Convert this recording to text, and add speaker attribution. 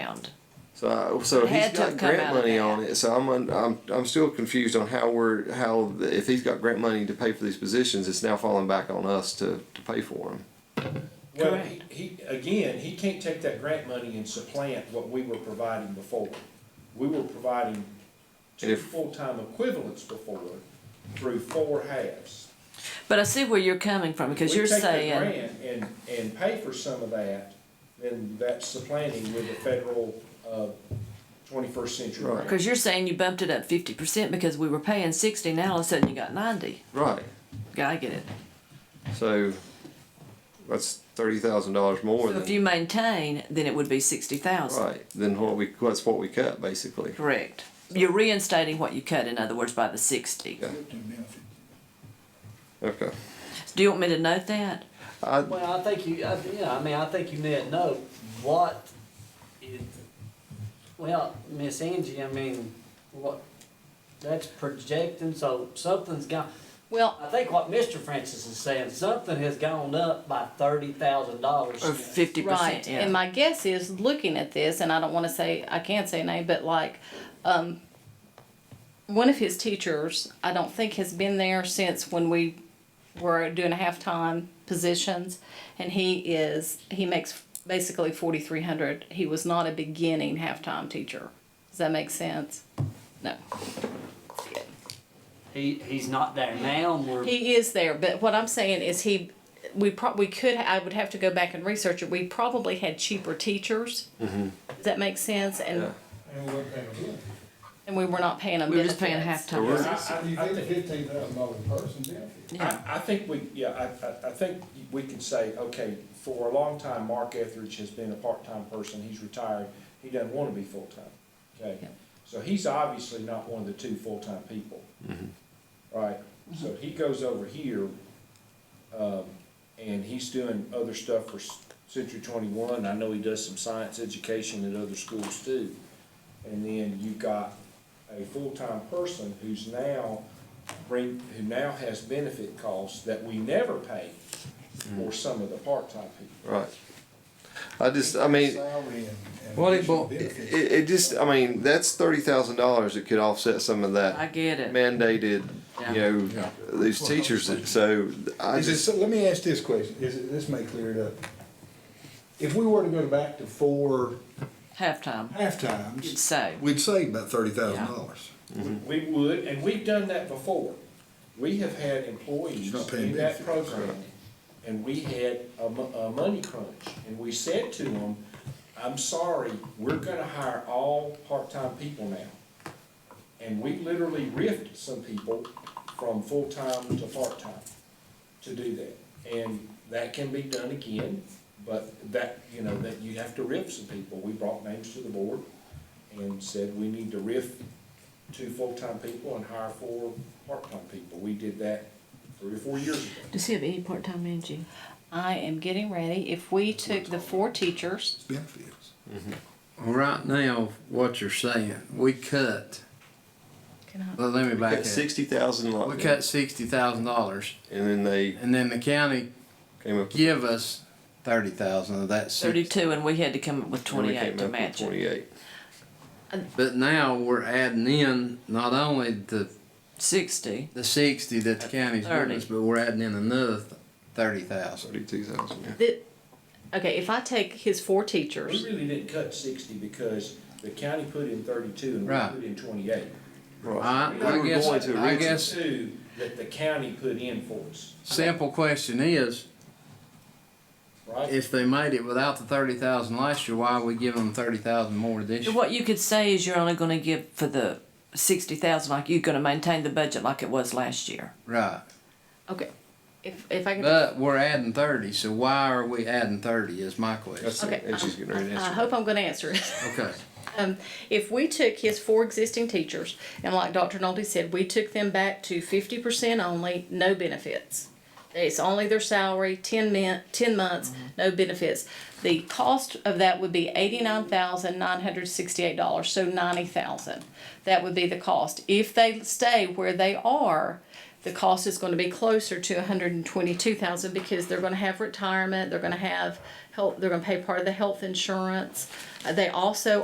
Speaker 1: So I, so
Speaker 2: It had
Speaker 1: he's
Speaker 2: to
Speaker 1: got
Speaker 2: have come
Speaker 1: grant
Speaker 2: out of
Speaker 1: money
Speaker 2: that.
Speaker 1: on it. So I'm un, I'm I'm still confused on how we're how the, if he's got grant money to pay for these positions, it's now falling back on us to to pay for them.
Speaker 3: Well,
Speaker 2: Correct.
Speaker 3: he, he- again, he can't take that grant money and supplant what we were providing before. We were providing two
Speaker 1: If-
Speaker 3: full-time equivalents before through four halves.
Speaker 2: But I see where you're coming from because
Speaker 3: We
Speaker 2: you're
Speaker 3: take the
Speaker 2: saying,
Speaker 3: grant And, and pay for some of that, then that's supplanting with the federal, uh, twenty-first century
Speaker 1: Right.
Speaker 3: grant.
Speaker 2: because you're saying you bumped it up fifty percent because we were paying sixty, now all of a sudden you got ninety.
Speaker 1: Right.
Speaker 2: I get it.
Speaker 1: So that's thirty thousand dollars more
Speaker 2: So
Speaker 1: than
Speaker 2: if you maintain, then it would be sixty thousand.
Speaker 1: right. Then what we what's what we cut basically.
Speaker 2: Correct. You're reinstating what you cut, in other words, by the sixty.
Speaker 1: Yeah. Okay.
Speaker 2: Do you want me to note that?
Speaker 1: I,
Speaker 4: Well, I think you, I, yeah, I mean, I think you need to know what is, well, Miss Angie, I mean, what, that's projecting, so something's gone.
Speaker 2: Well,
Speaker 4: I think what Mr. Francis is saying, something has gone up by thirty thousand dollars.
Speaker 2: Or fifty
Speaker 5: Right,
Speaker 2: percent,
Speaker 5: and
Speaker 2: yeah.
Speaker 5: my guess is, looking at this, and I don't wanna say, I can't say a name, but like, um, one of his teachers, I don't think has been there since when we were doing halftime positions, and he is, he makes basically forty-three hundred, he was not a beginning halftime teacher. Does that make sense? No.
Speaker 4: He, he's not there now, and we're,
Speaker 5: He is there, but what I'm saying is he, we prob, we could, I would have to go back and research it. We probably had cheaper teachers. Does that make sense? And,
Speaker 1: Mm-hmm. Yeah.
Speaker 6: And we're paying a bill.
Speaker 5: and we were not paying them
Speaker 2: We were just paying
Speaker 5: benefits.
Speaker 1: So we're-
Speaker 2: halftime.
Speaker 6: You
Speaker 3: I- I- I
Speaker 6: get a
Speaker 3: think-
Speaker 6: fifteen thousand dollar person benefit.
Speaker 2: Yeah.
Speaker 3: I, I think we, yeah, I, I, I think we can say, okay, for a long time, Mark Etheridge has been a part-time person, he's retired, he doesn't wanna be full-time, okay?
Speaker 5: Yeah.
Speaker 3: So he's obviously not one of the two full-time people. Right, so he goes over here, um, and he's doing other stuff for S- Century Twenty-One, I know he does some science education at other schools too. And then you've got a full-time person who's now bring, who now has benefit costs that we never pay for some of the part-time people.
Speaker 1: Right. I just I mean.
Speaker 6: Salary and- and
Speaker 1: Well, it,
Speaker 6: additional
Speaker 1: well, it,
Speaker 6: benefits.
Speaker 1: it it just, I mean, that's thirty thousand dollars that could offset some of
Speaker 2: I
Speaker 1: that
Speaker 2: get it.
Speaker 1: mandated, you know, these teachers, that- so I
Speaker 6: Is it,
Speaker 1: just,
Speaker 6: so let me ask this question, is it, this may clear it up. If we were to go back to four
Speaker 2: Halftime,
Speaker 6: halftimes,
Speaker 2: so.
Speaker 6: we'd save about thirty thousand dollars.
Speaker 3: Mm-hmm. We would, and we've done that before. We have had employees
Speaker 6: You're not paying
Speaker 3: in that
Speaker 6: benefits,
Speaker 3: program,
Speaker 6: right.
Speaker 3: and we had a, mo- a money crunch, and we said to them, I'm sorry, we're gonna hire all part-time people now. And we literally riffed some people from full-time to part-time to do that. And that can be done again, but that, you know, that you have to riff some people. We brought names to the board and said, we need to riff two full-time people and hire four part-time people. We did that three or four years ago.
Speaker 2: Does he have any part-time managing?
Speaker 5: I am getting ready. If we took the four teachers,
Speaker 6: Benefits.
Speaker 7: Well, Right now, what you're saying, we cut,
Speaker 5: can I,
Speaker 7: well, let me back
Speaker 1: cut
Speaker 7: up.
Speaker 1: sixty thousand
Speaker 7: We
Speaker 1: dollars,
Speaker 7: cut sixty thousand dollars,
Speaker 1: and then they
Speaker 7: and then the county
Speaker 1: came up.
Speaker 7: give us thirty thousand of that sixty.
Speaker 2: Thirty-two, and we had to come up with
Speaker 1: and we
Speaker 2: twenty-eight
Speaker 1: came
Speaker 2: to
Speaker 1: up with
Speaker 2: match it.
Speaker 1: Twenty-eight.
Speaker 7: But now we're adding in not only the,
Speaker 2: Sixty,
Speaker 7: the sixty that the county's giving us, but we're adding in another thirty thousand.
Speaker 1: Thirty-two thousand, yeah.
Speaker 5: the, okay, if I take his four
Speaker 3: We
Speaker 5: teachers,
Speaker 3: really didn't cut sixty because the county put in thirty-two and
Speaker 7: Right.
Speaker 3: we put in twenty-eight.
Speaker 7: I,
Speaker 1: We
Speaker 7: I
Speaker 1: were
Speaker 7: guess,
Speaker 1: going to
Speaker 7: I
Speaker 1: originally-
Speaker 7: guess,
Speaker 3: Two that the county put in for us,
Speaker 7: simple question is,
Speaker 3: right?
Speaker 7: if they made it without the thirty thousand last year, why are we giving them thirty thousand more this year?
Speaker 2: what you could say is you're only gonna give for the sixty thousand, like you're gonna maintain the budget like it was last year.
Speaker 7: Right.
Speaker 5: okay, if, if I can,
Speaker 7: But we're adding thirty, so why are we adding thirty is my
Speaker 1: That's
Speaker 7: question.
Speaker 5: okay.
Speaker 1: it, and she's getting ready to
Speaker 5: I
Speaker 1: answer.
Speaker 5: hope I'm gonna answer it.
Speaker 7: Okay.
Speaker 5: Um, if we took his four existing teachers, and like Dr. Nolte said, we took them back to fifty percent only, no benefits. It's only their salary, ten min, ten months, no benefits. The cost of that would be eighty-nine thousand nine hundred sixty-eight dollars, so ninety thousand. That would be the cost. If they stay where they are, the cost is gonna be closer to $122,000 because they're gonna have retirement, they're gonna have health, they're gonna pay part of the health insurance. Uh, They also